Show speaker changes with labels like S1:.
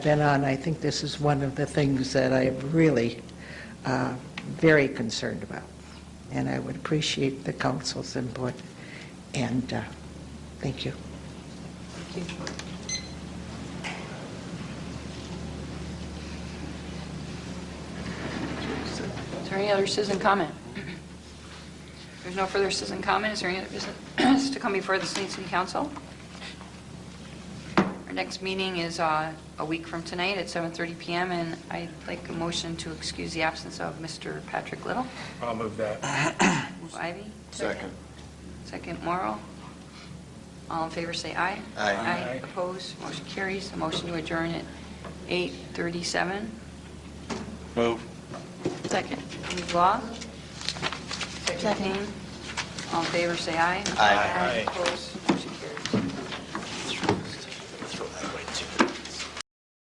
S1: been on, I think this is one of the things that I'm really uh, very concerned about, and I would appreciate the council's input, and uh, thank you.
S2: Is there any other citizen comment? There's no further citizen comment. Is there any other business to come before the Saline City Council? Our next meeting is uh, a week from tonight at 7:30 PM, and I'd like a motion to excuse the absence of Mr. Patrick Little.
S3: I'll move that.
S2: Ivy?
S4: Second.
S2: Second, Morrow. All in favor, say aye.
S4: Aye.
S2: Aye. Opposed, motion carries. The motion to adjourn at 8:37.
S4: Move.
S2: Second. Law? Second. All in favor, say aye.
S4: Aye.
S2: Opposed?